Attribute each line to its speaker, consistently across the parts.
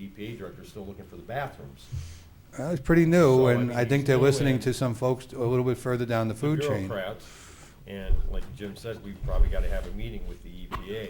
Speaker 1: EPA director's still looking for the bathrooms.
Speaker 2: Uh, It's pretty
Speaker 1: So,
Speaker 2: new,
Speaker 1: I
Speaker 2: and
Speaker 1: mean,
Speaker 2: I think
Speaker 1: it's
Speaker 2: they're
Speaker 1: new
Speaker 2: listening
Speaker 1: and-
Speaker 2: to some folks a little bit further down the
Speaker 1: The
Speaker 2: food chain.
Speaker 1: Bureaucrats, and like Jim said, we've probably gotta have a meeting with the EPA.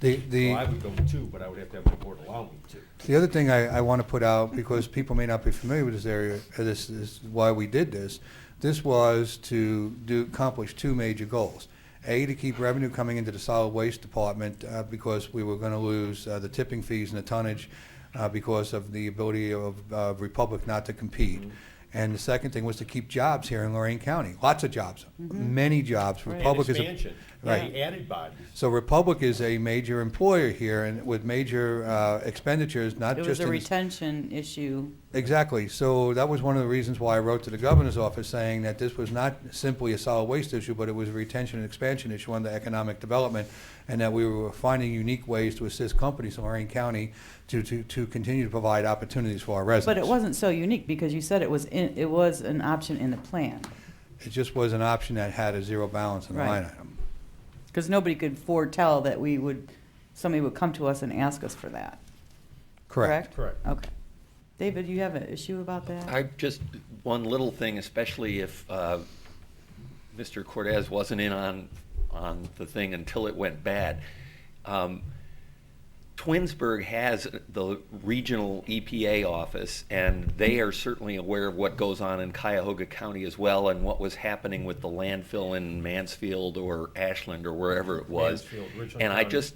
Speaker 2: The,
Speaker 1: Well, I
Speaker 2: the,
Speaker 1: would go too, but I would have to have the board allow me to.
Speaker 2: the other thing I, I want to put out, because people may not be familiar with this area, uh, this is why we did this. This was to do, accomplish two major goals. A, to keep revenue coming into the solid waste department, uh, because we were going to lose uh, the tipping fees and the tonnage uh, because of the ability of uh, Republic not to compete.
Speaker 1: Mm-hmm.
Speaker 2: And the second thing was to keep jobs here in Lorraine County, lots of jobs, many jobs.
Speaker 1: And
Speaker 2: Republic is a-
Speaker 1: expansion,
Speaker 2: Right.
Speaker 1: and added bodies.
Speaker 2: So Republic is a major employer here and with major uh, expenditures, not
Speaker 3: It
Speaker 2: just
Speaker 3: was a
Speaker 2: in the-
Speaker 3: retention issue.
Speaker 2: Exactly. So that was one of the reasons why I wrote to the governor's office saying that this was not simply a solid waste issue, but it was a retention and expansion issue under economic development, and that we were finding unique ways to assist companies in Lorraine County to, to, to continue to provide opportunities for our
Speaker 3: But
Speaker 2: residents.
Speaker 3: it wasn't so unique because you said it was, in- it was an option in the plan.
Speaker 2: It just was an option that had a zero balance in the
Speaker 3: Right.
Speaker 2: line item.
Speaker 3: Because nobody could foretell that we would, somebody would come to us and ask us for that. Correct?
Speaker 1: Correct.
Speaker 3: Okay. David, you have an issue about that?
Speaker 4: I just, one little thing, especially if uh, Mr. Cortez wasn't in on, on the thing until it went bad. Um, Twinsburg has the regional EPA office, and they are certainly aware of what goes on in Cuyahoga County as well, and what was happening with the landfill in Mansfield or Ashland or wherever it was.
Speaker 1: Mansfield, Richland
Speaker 4: And I
Speaker 1: County.
Speaker 4: just,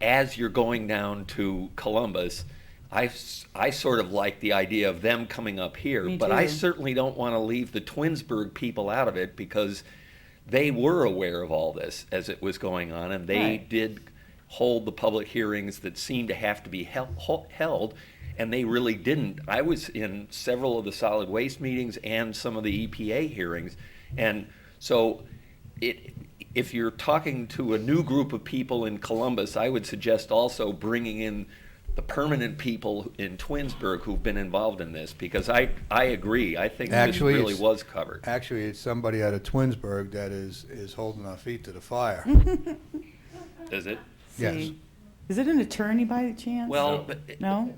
Speaker 4: as you're going down to Columbus, I, s- I sort of like the idea of them coming up here,
Speaker 3: Me
Speaker 4: but I
Speaker 3: too.
Speaker 4: certainly don't want to leave the Twinsburg people out of it because they were aware of all this as it was going on, and they
Speaker 3: Right.
Speaker 4: did hold the public hearings that seemed to have to be hel- ho- held, and they really didn't. I was in several of the solid waste meetings and some of the EPA hearings, and so it. If you're talking to a new group of people in Columbus, I would suggest also bringing in the permanent people in Twinsburg who've been involved in this, because I, I agree. I think this
Speaker 2: Actually,
Speaker 4: really
Speaker 2: it's-
Speaker 4: was covered.
Speaker 2: Actually, it's somebody out of Twinsburg that is, is holding our feet to the fire.
Speaker 4: Is it?
Speaker 2: yes.
Speaker 3: See? Is it an attorney by chance?
Speaker 4: Well, but-
Speaker 3: No?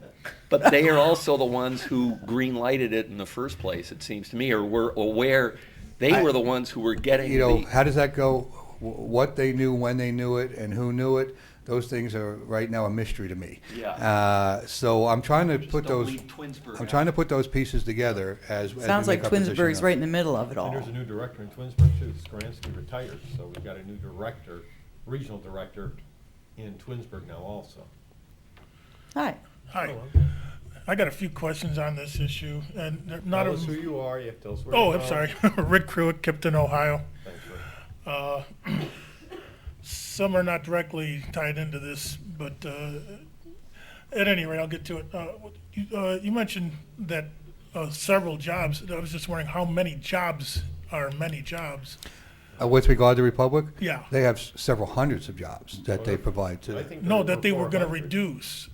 Speaker 4: But they are also the ones who green lighted it in the first place, it seems to me, or were aware. They
Speaker 2: I-
Speaker 4: were the ones who were getting
Speaker 2: you know,
Speaker 4: the-
Speaker 2: how does that go? Wh- What they knew, when they knew it, and who knew it, those things are right now a mystery to me.
Speaker 4: Yeah.
Speaker 2: Uh, so I'm trying to
Speaker 4: Just
Speaker 2: put
Speaker 4: don't
Speaker 2: those.
Speaker 4: leave Twinsburg
Speaker 2: I'm
Speaker 4: out.
Speaker 2: trying to put those pieces together as. as
Speaker 3: Sounds
Speaker 2: we
Speaker 3: like
Speaker 2: make our position
Speaker 3: Twinsburg's
Speaker 2: up.
Speaker 3: right in the middle of it
Speaker 2: Oh.
Speaker 1: And
Speaker 3: all.
Speaker 1: there's a new director in Twinsburg too, Skransky retired, so we've got a new director, regional director in Twinsburg now also.
Speaker 3: Hi.
Speaker 5: Hi, I got a few questions on this issue, and they're not
Speaker 1: Tell
Speaker 5: a.
Speaker 1: us who you are, you have to tell us where
Speaker 5: Oh,
Speaker 1: you're
Speaker 5: I'm
Speaker 1: from.
Speaker 5: sorry, Rick Crewitt, Kipton, Ohio.
Speaker 1: Thanks, Rick.
Speaker 5: Uh, Some are not directly tied into this, but uh, at any rate, I'll get to it. Uh, what- you- uh, You mentioned that uh, several jobs, I was just wondering how many jobs are many jobs?
Speaker 2: Uh, with regard to Republic,
Speaker 5: Yeah.
Speaker 2: they have s- several hundreds of jobs that they provide to.
Speaker 1: I think
Speaker 5: No,
Speaker 1: there
Speaker 5: that they were gonna
Speaker 1: 400.
Speaker 5: reduce.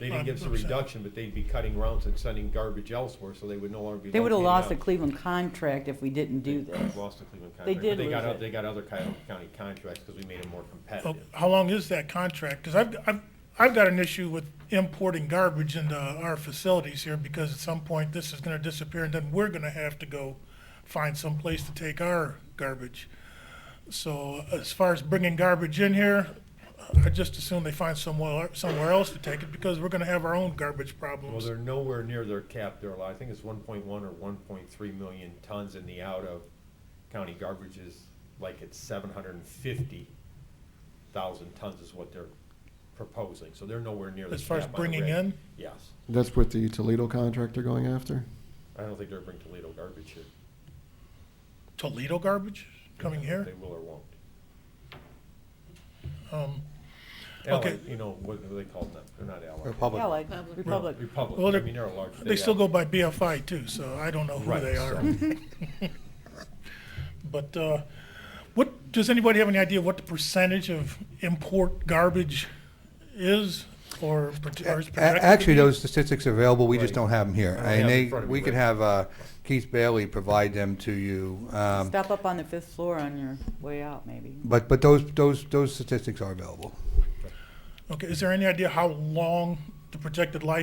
Speaker 1: They didn't give us a reduction, but they'd be cutting rounds and sending garbage elsewhere, so they would no longer be.
Speaker 3: They would have
Speaker 1: located
Speaker 3: lost
Speaker 1: out-
Speaker 3: the Cleveland contract if we didn't do this.
Speaker 1: They've Lost the Cleveland contract.
Speaker 3: They
Speaker 1: but
Speaker 3: did
Speaker 1: They got,
Speaker 3: lose
Speaker 1: oth-
Speaker 3: it.
Speaker 1: they got other Cuyahoga County contracts because we made them more
Speaker 5: Oh,
Speaker 1: competitive.
Speaker 5: How long is that contract? Because I've, I've, I've got an issue with importing garbage into our facilities here because at some point this is gonna disappear and then we're gonna have to go find some place to take our garbage. So as far as bringing garbage in here, I just assume they find somewhere, somewhere else to take it because we're gonna have our own garbage
Speaker 1: Well,
Speaker 5: problems.
Speaker 1: they're nowhere near their cap, they're, I think it's one point one or one point three million tons in the out of county garbage is like it's seven hundred and fifty thousand tons is what they're proposing, so they're nowhere near the
Speaker 5: As far as
Speaker 1: cap on the
Speaker 5: bringing
Speaker 1: reg.
Speaker 5: in?
Speaker 1: Yes,
Speaker 6: That's what the Toledo contract are going after?
Speaker 1: I don't think they're bringing Toledo garbage here.
Speaker 5: Toledo garbage coming here?
Speaker 1: They will or won't.
Speaker 5: Um,
Speaker 1: Allied,
Speaker 5: Okay.
Speaker 1: you know, what do they call them? They're not allied.
Speaker 2: Republic.
Speaker 3: Yeah, like Republic.
Speaker 5: Well,
Speaker 1: Republic, I
Speaker 5: they're-
Speaker 1: mean, they're a large.
Speaker 5: They still go by BFI too, so I don't know who
Speaker 1: Right,
Speaker 5: they are.
Speaker 1: so-
Speaker 5: But uh, what, does anybody have any idea what the percentage of import garbage is or prot- or is
Speaker 2: A-
Speaker 5: projected? to
Speaker 2: Actually,
Speaker 5: be?
Speaker 2: those statistics are available, we just
Speaker 1: Right.
Speaker 2: don't have them here.
Speaker 1: I don't have
Speaker 2: And
Speaker 1: 'em in
Speaker 2: they,
Speaker 1: front of me
Speaker 2: we could
Speaker 1: right
Speaker 2: have uh, Keith Bailey provide them to you. Um,
Speaker 3: Stop up on the fifth floor on your way out, maybe.
Speaker 2: but, but those, those, those statistics are available.
Speaker 5: Okay, is there any idea how long the projected life